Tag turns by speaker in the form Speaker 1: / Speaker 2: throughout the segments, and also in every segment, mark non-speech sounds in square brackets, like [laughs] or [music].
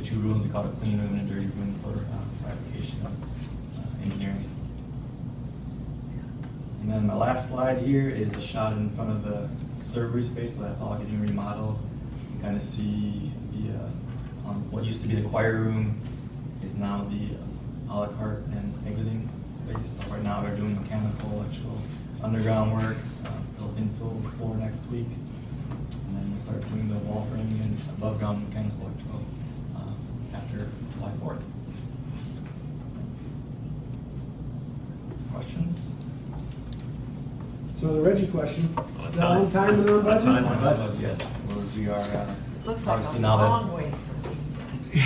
Speaker 1: two rooms, we call it a clean room and a dirty room for um, for application of uh, engineering. And then my last slide here is a shot in front of the server space, so that's all getting remodeled. You kind of see the, uh, um, what used to be the choir room is now the à la carte and exiting space. So right now, they're doing mechanical, electrical, underground work, uh, they'll infill the floor next week. And then we'll start doing the wall framing and above ground mechanical, electrical uh, after July 4th. Questions?
Speaker 2: So the Reggie question,
Speaker 3: On
Speaker 2: is that on
Speaker 3: time.
Speaker 2: time and on
Speaker 3: On
Speaker 2: budget?
Speaker 3: time.
Speaker 1: My budget, yes, well, we are, uh,
Speaker 4: Looks like
Speaker 1: obviously
Speaker 4: a
Speaker 1: now that-
Speaker 4: long way from me.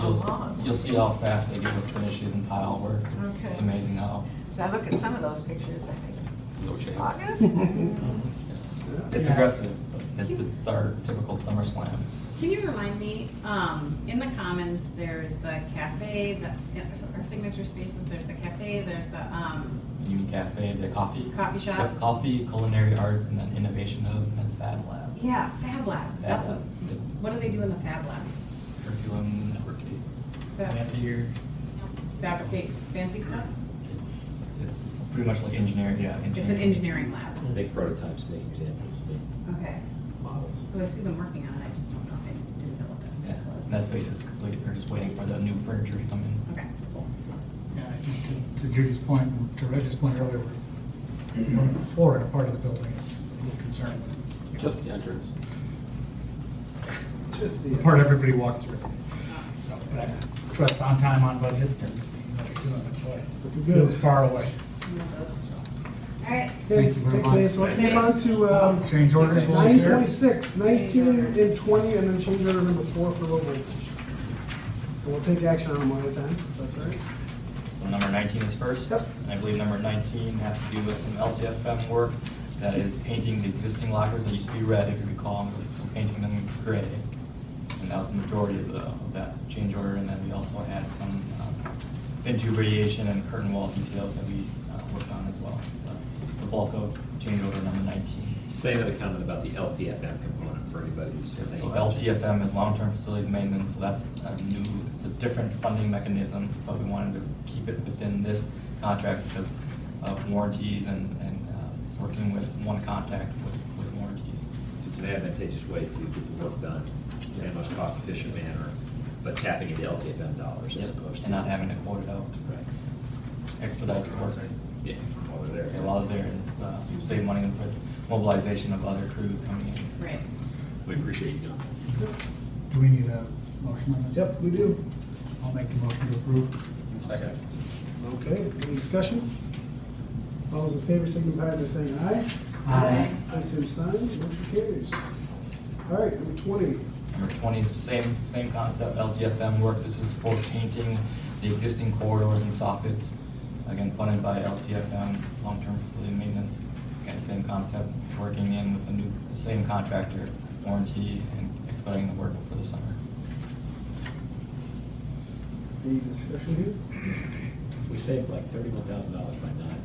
Speaker 1: You'll,
Speaker 4: long.
Speaker 1: s- you'll see how fast they get with finishes and tile work. It's- It's
Speaker 4: Okay.
Speaker 1: amazing how.
Speaker 4: As I look at some of those pictures, I think,
Speaker 1: No change. [laughs]
Speaker 4: August?
Speaker 1: It's
Speaker 2: Yeah.
Speaker 1: aggressive, but it's, it's our typical summer slam.
Speaker 5: Can you remind me, um, in the commons, there's the cafe, the, our signature spaces, there's the cafe, there's the, um,
Speaker 1: Union Cafe, the coffee.
Speaker 5: Coffee shop.
Speaker 1: Yep, Coffee, culinary arts, and then innovation hub and Fab Lab.
Speaker 5: yeah, Fab Lab, that's what,
Speaker 1: Fab Lab.
Speaker 5: what do they do in the Fab Lab?
Speaker 1: Curriculum networking.
Speaker 5: Fab-
Speaker 1: Nancy here,
Speaker 5: Fabricate fancy stuff?
Speaker 1: it's, it's pretty much like engineering, yeah.
Speaker 5: It's an engineering lab,
Speaker 6: Make prototypes, make examples, make
Speaker 5: okay.
Speaker 6: models.
Speaker 5: Well, I see them working on it, I just don't know, I just didn't know what
Speaker 1: Yeah,
Speaker 5: that space was.
Speaker 1: and that space is complete, they're just waiting for the new furniture to come in.
Speaker 5: Okay, cool.
Speaker 7: Yeah, I think to- to Judy's point, and to Reggie's point earlier, we're floor in a part of the building is a little concerning.
Speaker 6: Just the entrance.
Speaker 2: Just
Speaker 7: The part
Speaker 2: the, uh,
Speaker 7: everybody walks through. So, but I trust on time, on budget, and what you're doing, but boy, it's- it feels far away.
Speaker 5: One of those.
Speaker 7: So,
Speaker 5: All right,
Speaker 2: okay,
Speaker 7: Thank you very
Speaker 2: thanks,
Speaker 7: much.
Speaker 2: Leah, so let's move on to, um,
Speaker 7: Change orders while it's
Speaker 2: nine
Speaker 7: here.
Speaker 2: point six, nineteen and twenty, and then change order number four for local And we'll take action on them one at a time, if that's all right.
Speaker 1: So number 19 is first.
Speaker 2: Yep.
Speaker 1: And I believe number 19 has to do with some LTFM work that is painting the existing lockers that used to be red, if you recall, and we're painting them gray. And that was the majority of the, of that change order, and then we also had some um, fin tube radiation and curtain wall details that we uh, worked on as well. So That's the bulk of change order number 19.
Speaker 6: Say another comment about the LTFM component for anybody who's.
Speaker 1: So LTFM is long-term facilities maintenance, so that's a new, it's a different funding mechanism, but we wanted to keep it within this contract because of warranties and, and uh, working with one contact with, with warranties.
Speaker 6: It's an advantageous way to get the work done in a
Speaker 1: Yes.
Speaker 6: most cost-efficient manner, but tapping into LTFM dollars as opposed to.
Speaker 1: And not having to quote it out,
Speaker 6: Right.
Speaker 1: expedites the work.
Speaker 6: Yeah, while they're
Speaker 1: Okay,
Speaker 6: there.
Speaker 1: While they're there, it's, uh, you save money with mobilization of other crews coming in.
Speaker 5: right.
Speaker 6: We appreciate you doing that.
Speaker 7: Do we need a motion on this?
Speaker 2: Yep, we do.
Speaker 7: I'll make the motion to approve.
Speaker 6: Second.
Speaker 2: Okay, any discussion? All those in favor signify by saying aye.
Speaker 7: Aye.
Speaker 2: By same sign, motion carries. All right, number twenty,
Speaker 1: Number 20 is the same, same concept, LTFM work. This is for painting the existing corridors and soffits, again funded by LTFM, long-term facility maintenance. Again, same concept, working in with a new, same contractor, warranty, and expediting the work before the summer.
Speaker 2: any discussion here?
Speaker 6: We saved like thirty-one thousand dollars by not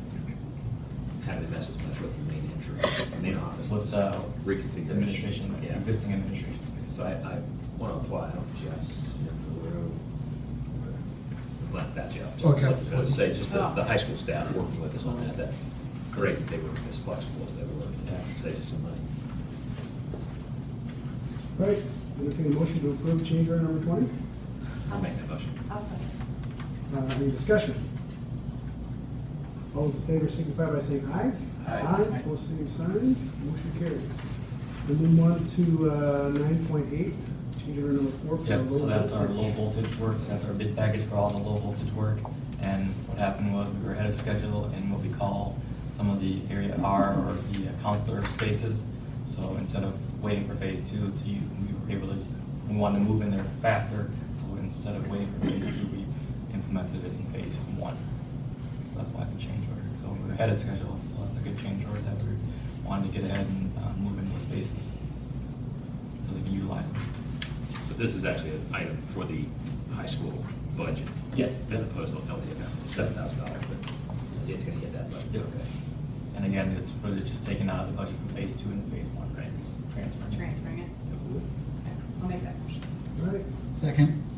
Speaker 6: having to mess as much with the main entrance, main office.
Speaker 1: With, uh,
Speaker 6: Reconfiguration.
Speaker 1: Administration,
Speaker 6: Yeah.
Speaker 1: existing administration space.
Speaker 6: So I, I want to apply, I don't Jeff's, not that Jeff. Jeff.
Speaker 7: Okay.
Speaker 6: I would say just the, the high school staff working with us on that, that's great that they were as flexible as they were, to save us some money.
Speaker 2: All right, entertain a motion to approve change order number twenty.
Speaker 6: I'll make that motion.
Speaker 4: I'll second.
Speaker 2: Uh, Any discussion? All those in favor signify by saying aye.
Speaker 6: Aye.
Speaker 2: Aye, All same sign, motion carries. And then one to uh, nine point eight, change order number four. for
Speaker 1: Yep,
Speaker 2: the
Speaker 1: so
Speaker 2: low
Speaker 1: that's our low
Speaker 2: voltage.
Speaker 1: voltage work, that's our bid package for all the low voltage work. And what happened was we were ahead of schedule in what we call some of the area R or the uh, counselor spaces. So instead of waiting for phase two, to you- we were able to, we wanted to move in there faster. So instead of waiting for phase two, we implemented it in phase one. So that's why it's a change order. So we were ahead of schedule, so that's a good change order that we wanted to get ahead and uh, move into the spaces. So they can utilize them.
Speaker 6: But this is actually an item for the high school budget.
Speaker 1: Yes.
Speaker 6: As opposed to LTFM, seven thousand dollars, but it's gonna get that budget.
Speaker 1: Yeah, okay. And again, it's really just taken out of the budget from phase two and phase one, so
Speaker 6: Right.
Speaker 1: just transferring.
Speaker 5: Transferring it,
Speaker 6: Okay.
Speaker 5: okay, I'll make that motion.
Speaker 2: All right,
Speaker 7: Second.